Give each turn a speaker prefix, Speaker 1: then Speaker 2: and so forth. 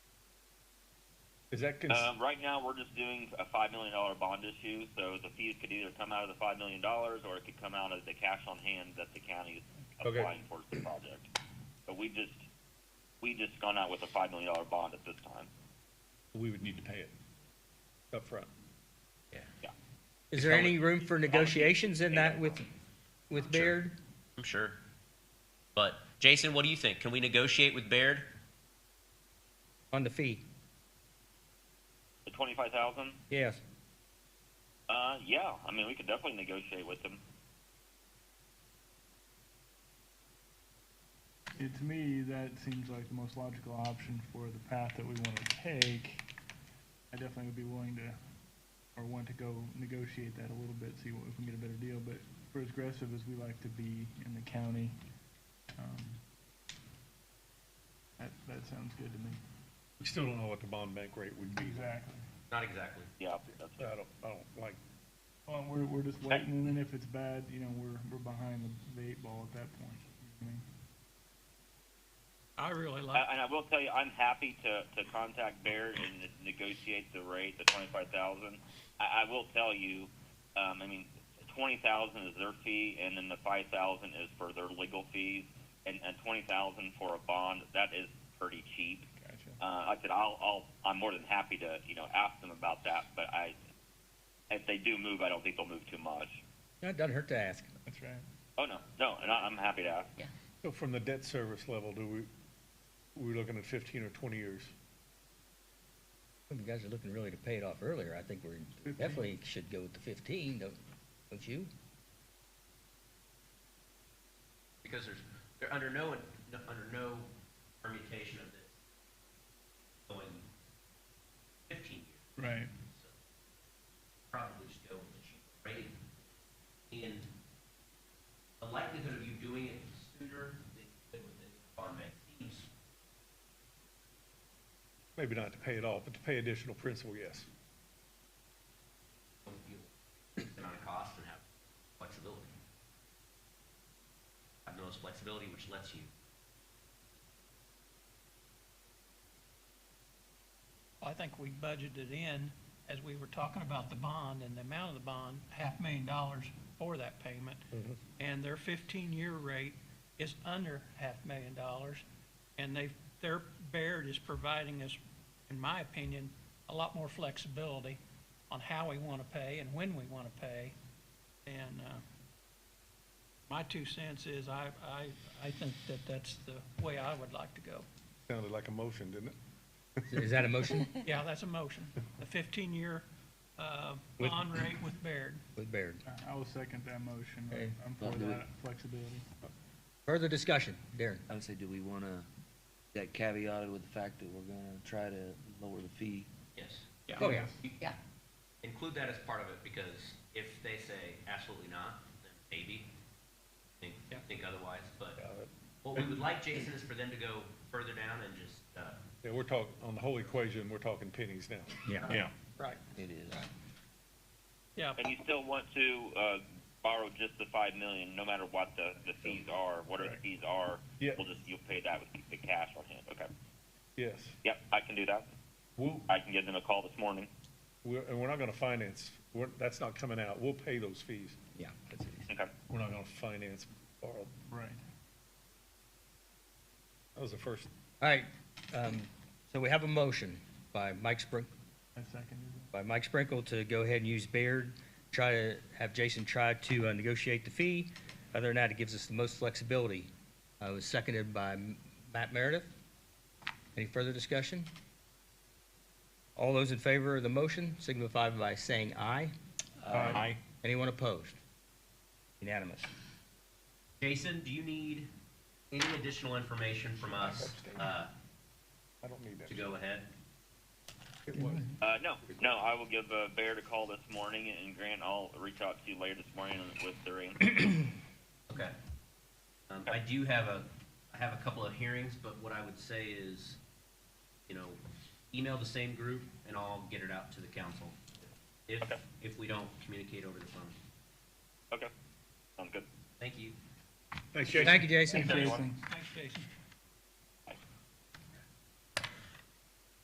Speaker 1: Is that cons-
Speaker 2: Um, right now, we're just doing a five million dollar bond issue, so the fees could either come out of the five million dollars or it could come out of the cash on hand that the county is
Speaker 1: Okay.
Speaker 2: applying towards the project. But we just we just gone out with a five million dollar bond at this time.
Speaker 1: we would need to pay it up front.
Speaker 3: Is there any room for negotiations in that with, with
Speaker 4: Sure.
Speaker 3: Baird?
Speaker 4: I'm sure. But Jason, what do you think? Can we negotiate with Baird?
Speaker 3: On the fee,
Speaker 2: The twenty five thousand.
Speaker 3: yes.
Speaker 2: Uh, yeah. I mean, we could definitely negotiate with them.
Speaker 5: It, to me, that seems like the most logical option for the path that we want to take. I definitely would be willing to, or want to go negotiate that a little bit, see what- if we can get a better deal, but for as aggressive as we like to be in the county, um, that, that sounds good to me.
Speaker 1: We still don't know what the bond bank rate would be.
Speaker 5: Exactly.
Speaker 4: Not exactly.
Speaker 2: Yeah, that's
Speaker 1: I don't, I don't like,
Speaker 5: Well, we're, we're just waiting, and then if it's bad, you know, we're, we're behind the- the eight ball at that point. I mean,
Speaker 6: I really like,
Speaker 2: I, and I will tell you, I'm happy to, to contact Baird and to negotiate the rate, the twenty five thousand. I, I will tell you, um, I mean, twenty thousand is their fee, and then the five thousand is for their legal fees, and, and twenty thousand for a bond. That is pretty cheap.
Speaker 5: Gotcha.
Speaker 2: Uh, like I said, I'll, I'll, I'm more than happy to, you know, ask them about that. But I, if they do move, I don't think they'll move too much.
Speaker 3: That doesn't hurt to ask.
Speaker 5: That's right.
Speaker 2: Oh no, no, and I, I'm happy to ask.
Speaker 1: so from the debt service level, do we, we're looking at fifteen or twenty years?
Speaker 3: You guys are looking really to pay it off earlier. I think we're, definitely should go with the fifteen, don't, don't you?
Speaker 4: Because there's, they're under no, under no permutation of this going fifteen years.
Speaker 5: Right.
Speaker 4: probably just go with the cheaper rate. And the likelihood of you doing it sooner than you could with the bond bank seems
Speaker 1: Maybe not to pay it off, but to pay additional principal, yes.
Speaker 4: don't feel the amount of cost and have flexibility. Have the most flexibility, which lets you.
Speaker 6: I think we budgeted in, as we were talking about the bond and the amount of the bond, half million dollars for that payment. And their fifteen-year rate is under half million dollars. And they, their Baird is providing us, in my opinion, a lot more flexibility on how we want to pay and when we want to pay. And, uh, my two cents is I, I, I think that that's the way I would like to go.
Speaker 1: Sounded like a motion, didn't it?
Speaker 3: Is that a motion
Speaker 6: Yeah, that's a motion. The fifteen-year, uh,
Speaker 3: With-
Speaker 6: bond rate with Baird.
Speaker 3: with Baird?
Speaker 5: I- I will second that motion.
Speaker 3: Okay.
Speaker 5: I'm for that flexibility.
Speaker 3: Further discussion, Darren?
Speaker 7: I would say, do we wanna, that caveated with the fact that we're gonna try to lower the fee?
Speaker 4: Yes.
Speaker 3: Oh, yeah.
Speaker 8: Yeah.
Speaker 4: Include that as part of it, because if they say absolutely not, then maybe, think,
Speaker 6: Yeah.
Speaker 4: think otherwise, but what we would like, Jason, is for them to go further down and just, uh,
Speaker 1: Yeah, we're talking, on the whole equation, we're talking pennies now.
Speaker 3: Yeah.
Speaker 1: Yeah.
Speaker 6: Right.
Speaker 7: It is.
Speaker 6: Yeah,
Speaker 2: And you still want to uh, borrow just the five million, no matter what the, the fees are, whatever the
Speaker 1: Correct.
Speaker 2: fees are.
Speaker 1: Yeah.
Speaker 2: We'll just you'll pay that with the cash on hand. Okay.
Speaker 1: Yes.
Speaker 2: Yep, I can do that.
Speaker 1: We'll,
Speaker 2: I can give them a call this morning.
Speaker 1: we're, and we're not gonna finance, we're, that's not coming out. We'll pay those fees.
Speaker 3: Yeah. that's it.
Speaker 2: Okay.
Speaker 1: We're not gonna finance, borrow.
Speaker 5: Right.
Speaker 1: That was the first
Speaker 3: All right, um, so we have a motion by Mike Sprink,
Speaker 5: I seconded it.
Speaker 3: by Mike Sprinkle to go ahead and use Baird, try to have Jason try to uh, negotiate the fee. Other than that, it gives us the most flexibility. Uh, It was seconded by M- Matt Meredith. Any further discussion? All those in favor of the motion signify by saying aye. Aye. Anyone opposed? Unanimous.
Speaker 4: Jason, do you need any additional information from us uh,
Speaker 1: I don't need that.
Speaker 4: to go ahead?
Speaker 1: It was.
Speaker 2: Uh, no, no, I will give uh, Baird a call this morning, and Grant, I'll reach out to you later this morning with their answer.
Speaker 4: Okay. Um, I do have a, I have a couple of hearings, but what I would say is, you know, email the same group and I'll get it out to the council. If,
Speaker 2: Okay.
Speaker 4: if we don't communicate over the phone.
Speaker 2: okay. Sounds good.
Speaker 4: Thank you.
Speaker 1: Thanks, Jason.
Speaker 3: Thank you, Jason.
Speaker 2: Thanks, everyone.
Speaker 5: Jason.
Speaker 6: thanks, Jason.